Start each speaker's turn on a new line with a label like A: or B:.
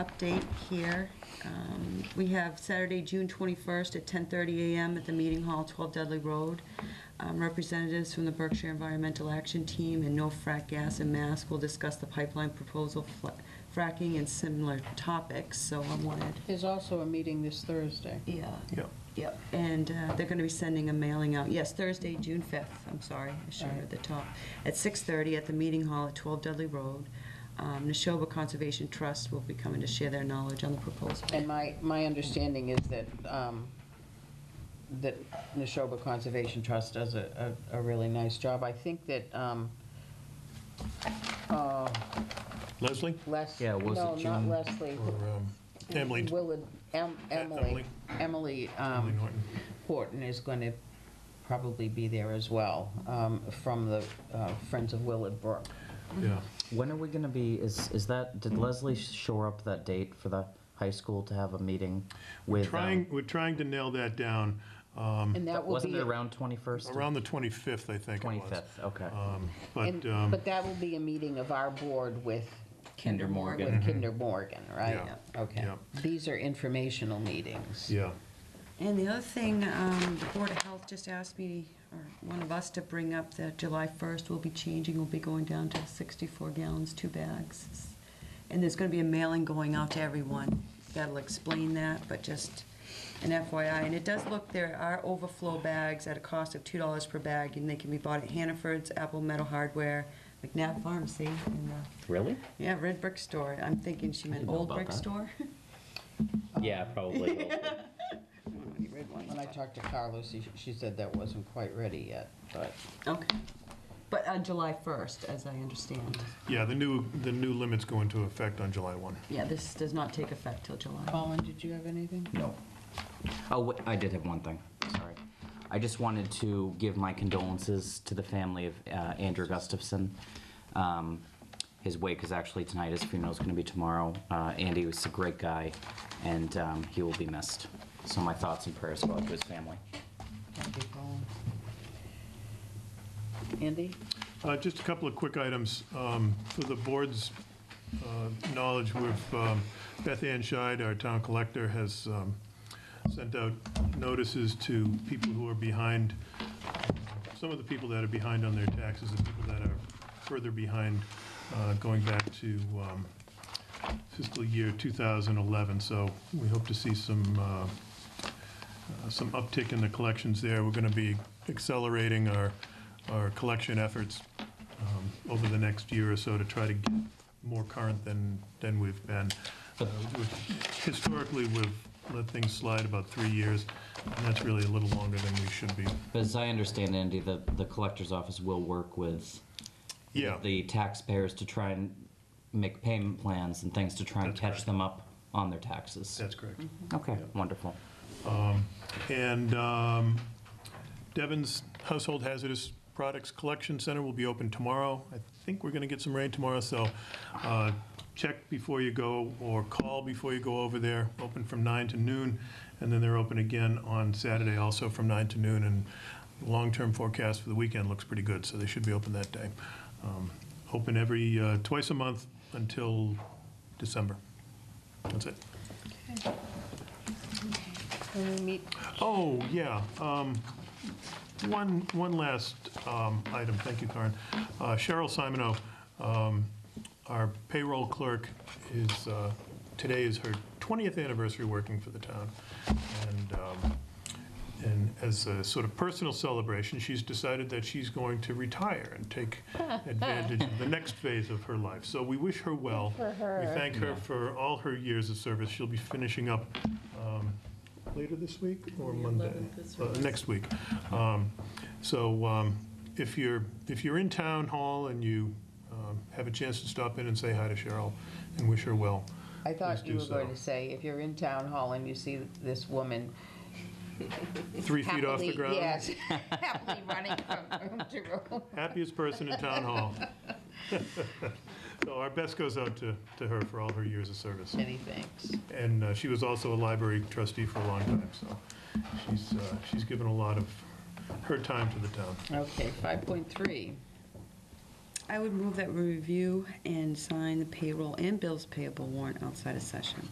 A: update here. Um, We have Saturday, June 21st at 10:30 a.m. at the Meeting Hall, 12 Dudley Road. Um, Representatives from the Berkshire Environmental Action Team and No Frack Gas and Mask will discuss the pipeline proposal, fla- fracking, and similar topics, so I wanted
B: There's also a meeting this Thursday.
A: Yeah.
C: Yep.
A: Yep, and uh, they're going to be sending a mailing out, yes, Thursday, June 5th, I'm sorry, I should have read the top, at 6:30 at the Meeting Hall at 12 Dudley Road. Um, Neshoba Conservation Trust will be coming to share their knowledge on the proposal.
B: And my, my understanding is that, um, that Neshoba Conservation Trust does a, a a really nice job. I think that, um, uh,
C: Leslie?
B: Les.
D: Yeah, was it
B: No,
D: June
B: not Leslie.
C: um, Emily.
D: Um,
B: Willard, Em- Emily,
C: Emily.
B: Emily
C: Emily
B: um,
C: Norton.
B: Horton is going to probably be there as well, um, from the uh, Friends of Willard Brook.
C: Yeah.
D: When are we gonna be, is, is that,
C: Mm.
D: did Leslie shore up that date for the high school to have a meeting with? um,
C: Trying, we're trying to nail that down um,
B: And that will
D: Wasn't
B: be,
D: it around twenty-first?
C: around the 25th, I think it was.
D: Twenty-fifth, okay.
C: Um,
B: and-
C: But, um,
B: but that will be a meeting of our board with.
D: Kinder Morgan.
B: With Kinder Morgan, right?
C: Mm-hmm. Yeah.
B: Okay.
C: Yeah.
B: These are informational meetings.
C: yeah,
A: And the other thing, um, the Board of Health just asked me, or one of us, to bring up that July 1st will be changing, we'll be going down to 64 gallons, two bags. And there's going to be a mailing going out to everyone. That'll explain that, but just an FYI. And it does look, there are overflow bags at a cost of $2 per bag, and they can be bought at Hannaford's, Apple Metal Hardware, McNabb Pharmacy, and, uh,
D: Really?
A: yeah, Red Brick Store. I'm thinking she meant
D: didn't know
A: Old
D: about
A: Brick
D: that.
A: Store.
D: Yeah, probably.
A: I don't know any red ones,
B: When I
A: but-
B: talked to Carlos, she, she said that wasn't quite ready yet, but
A: Okay. But on July 1st, as I understand.
C: yeah, the new, the new limits go into effect on July 1.
A: Yeah, this does not take effect till July.
B: Colin, did you have anything?
D: No. Oh, wait, I did have one thing, sorry. I just wanted to give my condolences to the family of uh, Andrew Gustafson. Um, His wake is actually tonight, his funeral's gonna be tomorrow. Uh, Andy was a great guy, and um, he will be missed. So my thoughts and prayers go out to his family.
B: Thank you, Colin. Andy?
C: Uh, Just a couple of quick items. Um, For the board's uh, knowledge, we've, um, Beth Ann Scheid, our town collector, has um, sent out notices to people who are behind, some of the people that are behind on their taxes, and people that are further behind uh, going back to um, fiscal year 2011. So we hope to see some uh, uh, some uptick in the collections there. We're going to be accelerating our, our collection efforts um, over the next year or so to try to get more current than, than we've been. Uh, we've- Historically, we've let things slide about three years, and that's really a little longer than we should be.
D: But as I understand, Andy, the, the collector's office will work with
C: Yeah.
D: the taxpayers to try and make payment plans and things to try and
C: That's
D: catch
C: correct.
D: them up on their taxes.
C: That's correct.
D: Okay, wonderful.
C: And um, Devon's Household Hazardous Products Collection Center will be open tomorrow. I think we're going to get some rain tomorrow, so uh, check before you go or call before you go over there. Open from 9 to noon, and then they're open again on Saturday also from 9 to noon. And long-term forecast for the weekend looks pretty good, so they should be open that day. Um, Open every, uh, twice a month until December. That's it.
B: Can we meet?
C: Oh, yeah. um, One, one last um, item, thank you, Karen. Uh, Cheryl Simonow, um, our payroll clerk, is, uh, today is her 20th anniversary working for the town. And, um, and as a sort of personal celebration, she's decided that she's going to retire and take advantage of the next phase of her life. So we wish her well. We thank her for all her years of service. She'll be finishing up um, later this week or Monday? Uh, Next week. Um, So um, if you're, if you're in town hall and you um, have a chance to stop in and say hi to Cheryl and wish her well.
B: I thought
C: Please
B: you
C: do
B: were going
C: so.
B: to say, if you're in town hall and you see this woman
C: Three feet off the
B: happily-
C: ground.
B: Yes, happily running from room to room.
C: Happiest person in town hall. So our best goes out to, to her for all her years of service.
B: Many thanks.
C: And uh, she was also a library trustee for a long time, so she's, uh, she's given a lot of her time to the town.
B: Okay, 5.3.
A: I would move that we review and sign the payroll and bills payable warrant outside of session.